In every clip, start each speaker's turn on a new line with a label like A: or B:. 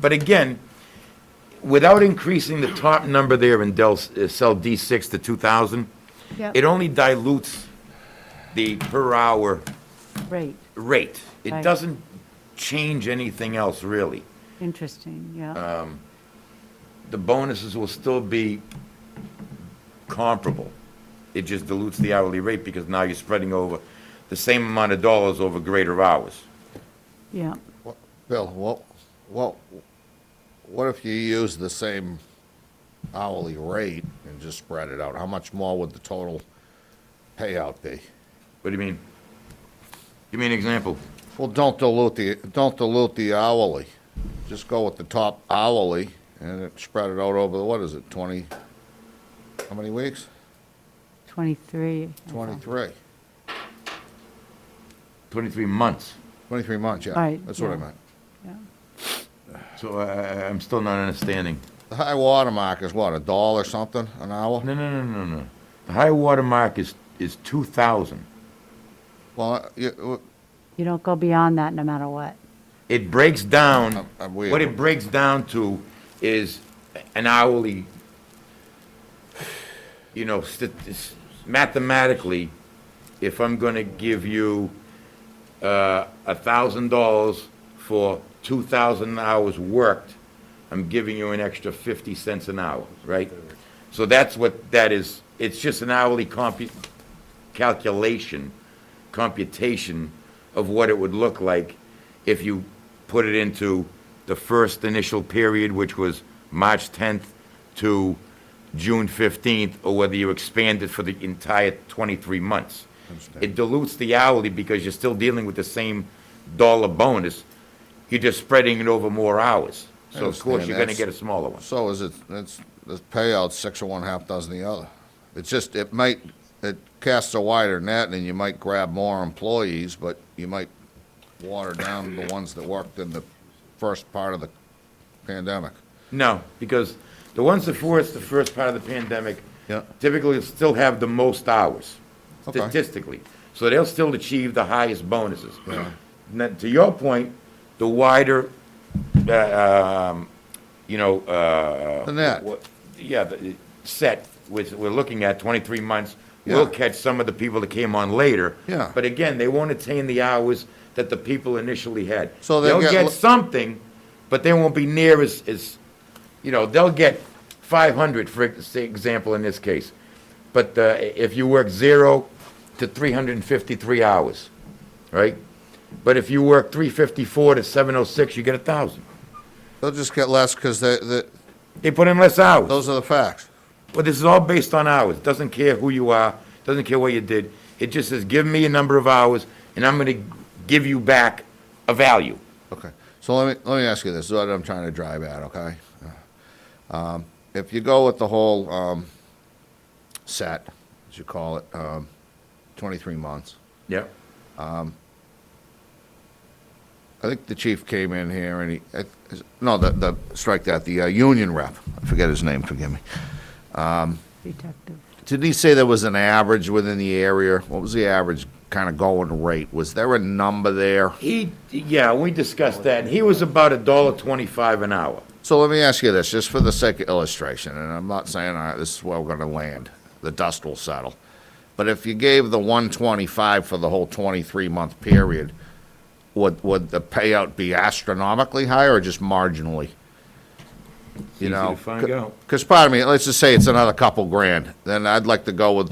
A: But again, without increasing the top number there in Del, uh, cell D6 to 2,000,
B: Yep.
A: it only dilutes the per hour
B: Right,
A: rate. It
B: Right.
A: doesn't change anything else, really.
B: interesting,
C: Uh,
B: yeah.
A: The bonuses will still be comparable. It just dilutes the hourly rate because now you're spreading over the same amount of dollars over greater hours.
B: Yeah,
C: Well, Bill, what, what, what if you use the same hourly rate and just spread it out? How much more would the total payout be?
A: What do you mean? Give me an example.
C: Well, don't dilute the, don't dilute the hourly. Just go with the top hourly and it- spread it out over, what is it, twenty, how many weeks?
B: 23. I thought.
C: Twenty-three.
A: 23 months.
C: Twenty-three months, yeah.
B: Right,
C: That's what I
B: yeah.
C: meant.
B: Yeah.
A: So I, I- I'm still not understanding.
C: The high water mark is what, a dollar something an hour?
A: No, no, no, no, no. The high water mark is, is 2,000.
C: Well, you,
B: You don't go beyond that no matter what.
A: It breaks down,
C: I'm- I'm weird.
A: what it breaks down to is an hourly, you know, st- s- mathematically, if I'm going to give you uh, $1,000 for 2,000 hours worked, I'm giving you an extra 50 cents an hour, right? So that's what that is. It's just an hourly compu- calculation, computation of what it would look like if you put it into the first initial period, which was March 10th to June 15th, or whether you expand it for the entire 23 months. It dilutes the hourly because you're still dealing with the same dollar bonus. You're just spreading it over more hours. So of course,
C: understand.
A: you're gonna
C: That's-
A: get a smaller one.
C: So is it, it's, the payout's six or one, half dozen the other. It's just, it might, it casts a wider net and you might grab more employees, but you might water down the ones that worked in the first part of the pandemic.
A: No, because the ones before us, the first part of the pandemic,
C: Yeah.
A: typically still have the most hours
C: Okay.
A: statistically. So they'll still achieve the highest bonuses. Now, to your point, the wider, uh, um, you know, uh.
C: The net.
A: wha- Yeah, the set, which we're looking at, twenty-three months, will
C: Yeah.
A: catch some of the people that came on later.
C: Yeah.
A: But again, they won't attain the hours that the people initially had.
C: So they'll get
A: get
C: l-
A: something, but they won't be near as, as, you know, they'll get 500, for ex- example, in this case. But uh, if you work zero to 353 hours, right? But if you work 354 to 706, you get a 1,000.
C: They'll just get less because they, they,
A: They put in less hours.
C: those are the facts.
A: But this is all based on hours. Doesn't care who you are, doesn't care what you did. It just says, give me a number of hours, and I'm going to give you back a value.
C: Okay, so let me, let me ask you this, this is what I'm trying to drive at, okay? Um, if you go with the whole, um, set, as you call it, um, twenty-three months,
A: Yep.
C: I think the chief came in here and he, uh, no, the, the, strike that, the uh, union rep, I forget his name, forgive me.
B: Detective.
C: Did he say there was an average within the area? What was the average kind of going rate? Was there a number there?
A: He, yeah, we discussed that, and he was about a dollar twenty-five an hour.
C: So let me ask you this, just for the sake of illustration, and I'm not saying uh, this is where we're gonna land, the dust will settle. But if you gave the one twenty-five for the whole twenty-three month period, would, would the payout be astronomically high or just marginally? You
A: easy
C: know,
A: to find out.
C: Because pardon me, let's just say it's another couple grand, then I'd like to go with,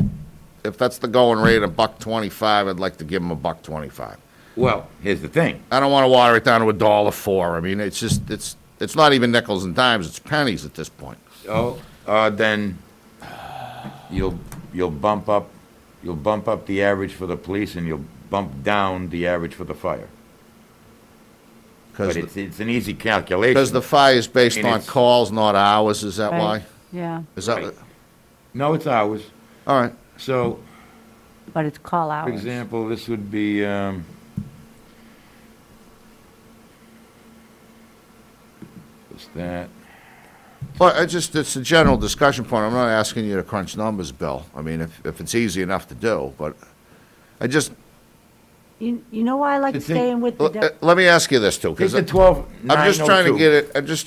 C: if that's the going rate, a buck twenty-five, I'd like to give him a buck twenty-five.
A: Well, here's the thing.
C: I don't want to water it down to a dollar four. I mean, it's just, it's, it's not even nickels and dimes, it's pennies at this point.
A: Oh, uh, then you'll, you'll bump up, you'll bump up the average for the police and you'll bump down the average for the fire. But
C: Because
A: it's, it's an easy calculation.
C: the fire is based
A: And
C: on
A: it's-
C: calls, not hours, is that
B: Right.
C: why?
B: Yeah,
C: Is that,
A: Right. No, it's hours.
C: all right,
A: So,
B: but it's call
A: for
B: hours.
A: example, this would be, um, what's that?
C: but I just, it's a general discussion point, I'm not asking you to crunch numbers, Bill. I mean, if, if it's easy enough to do, but I just,
B: You, you know why I like
A: It's in-
B: staying with the.
C: l-
B: de-
C: uh, let me ask you this too,
A: Take
C: because
A: the
C: I'm
A: twelve, nine oh two.
C: just trying to get it, I'm just